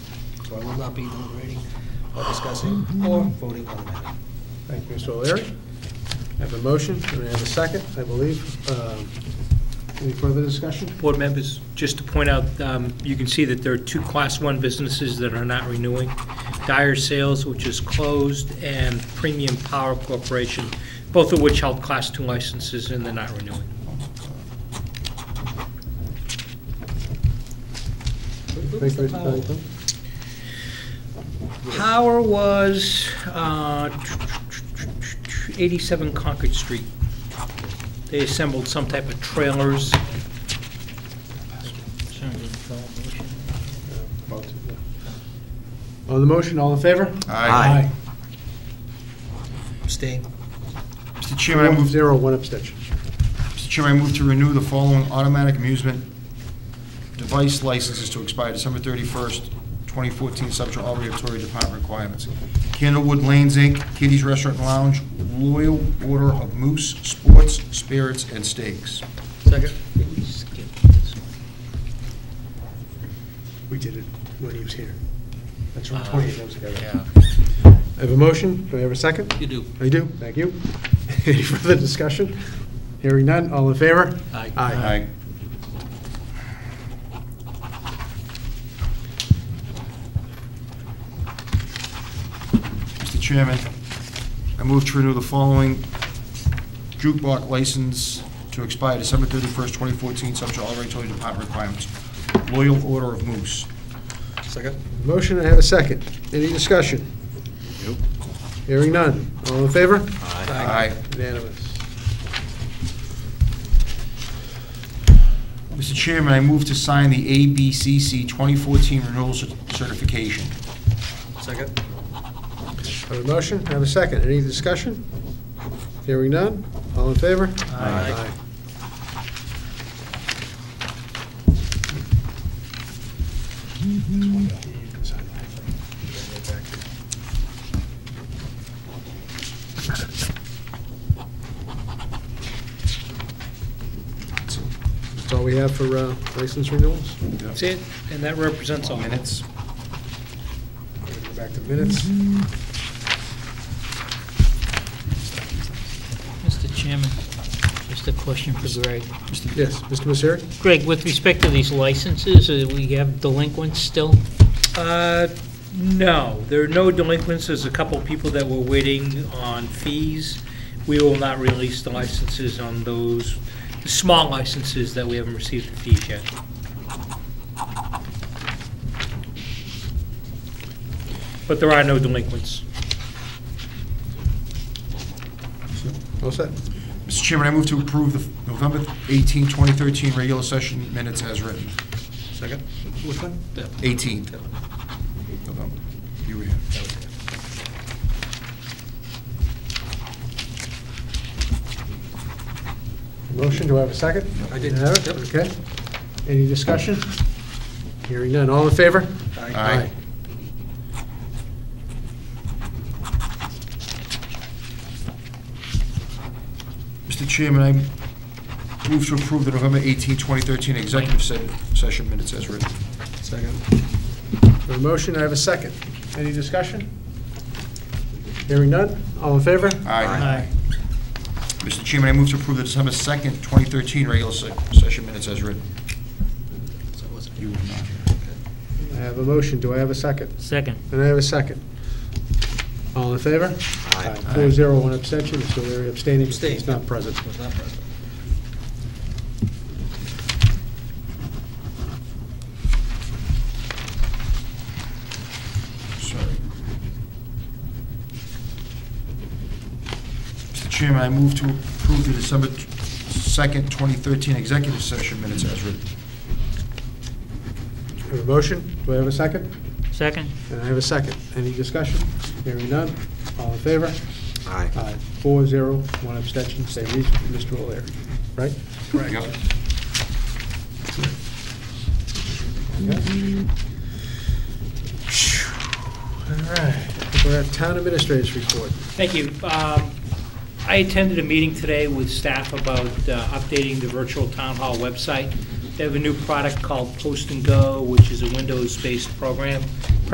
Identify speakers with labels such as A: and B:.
A: so I will not be deliberating or discussing or voting on the matter.
B: Thank you, Mr. O'Leary. I have a motion, and I have a second, I believe. Um, Any further discussion?
C: Board members, just to point out, um, you can see that there are two Class 1 businesses that are not renewing. Dyer Sales, which is closed, and Premium Power Corporation, both of which held Class 2 licenses, and they're not renewing.
B: Thank you, Mr.
C: uh,
B: Pennington.
C: Power was uh, 87 Concord Street. They assembled some type of trailers.
B: Vote, yeah. On the motion, all in favor?
D: Aye.
A: Abstain.
D: Mr. Chairman, I
B: One
D: move,
B: zero, one abstention.
D: Mr. Chairman, I move to renew the following automatic amusement device licenses to expire December 31st, 2014, subject to all regulatory department requirements. Candlewood Lanes, Inc., Kitty's Restaurant and Lounge, Loyal Order of Moose, Sports, Spirits, and Steaks.
C: Second.
B: We did it when he was here. That's from
C: Uh,
B: 20 years ago.
C: Yeah.
B: I have a motion, do I have a second?
C: You do.
B: I do, thank you. Any further discussion? Hearing none, all in favor?
C: Aye.
B: Aye.
D: Mr. Chairman, I move to renew the following jukebox license to expire December 31st, 2014, subject to all regulatory department requirements. Loyal Order of Moose.
A: Second?
B: Motion, I have a second. Any discussion?
D: Nope.
B: Hearing none, all in favor?
D: Aye.
B: Unanimous.
D: Mr. Chairman, I move to sign the ABCC 2014 renewal cer- certification.
A: Second?
B: I have a motion, I have a second. Any discussion? Hearing none, all in favor?
A: Aye.
B: That's all we have for uh, license renewals.
C: That's it, and that represents all.
D: Minutes.
B: We're gonna Go back to minutes.
E: Mr. Chairman, just a question for Greg.
B: Yes, Mr. Misery?
E: Greg, with respect to these licenses, uh, we have delinquents still?
C: Uh, No, there are no delinquents. There's a couple people that were waiting on fees. We will not release the licenses on those, the small licenses that we haven't received the fees yet. But there are no delinquents.
B: All set?
D: Mr. Chairman, I move to approve the November 18, 2013 regular session minutes as written.
A: Second? Which one?
D: 18th. November. You were here.
B: Motion, do I have a second?
A: I did.
B: Have it?
A: Yep.
B: Okay. Any discussion? Hearing none, all in favor?
D: Aye. Mr. Chairman, I move to approve the November 18, 2013 executive se- session minutes as written.
A: Second?
B: A motion, I have a second. Any discussion? Hearing none, all in favor?
D: Aye. Mr. Chairman, I move to approve the December 2nd, 2013 regular se- session minutes as written.
A: So it wasn't
D: You
A: you.
D: were not here.
B: I have a motion, do I have a second?
E: Second.
B: And I have a second. All in favor?
A: Aye.
B: Four zero, one abstention, Mr. Leary abstaining,
A: Abstain.
B: he's not present.
A: Was not present.
D: Sorry. Mr. Chairman, I move to approve the December 2nd, 2013 executive session minutes as written.
B: I have a motion, do I have a second?
E: Second?
B: And I have a second. Any discussion? Hearing none, all in favor?
A: Aye.
B: Aye. Four zero, one abstention, same reason, Mr. O'Leary, right?
D: Yep.
B: Okay. All right, we're at town administrator's report.
C: Thank you. Um, I attended a meeting today with staff about uh, updating the virtual town hall website. They have a new product called Post and Go, which is a Windows-based program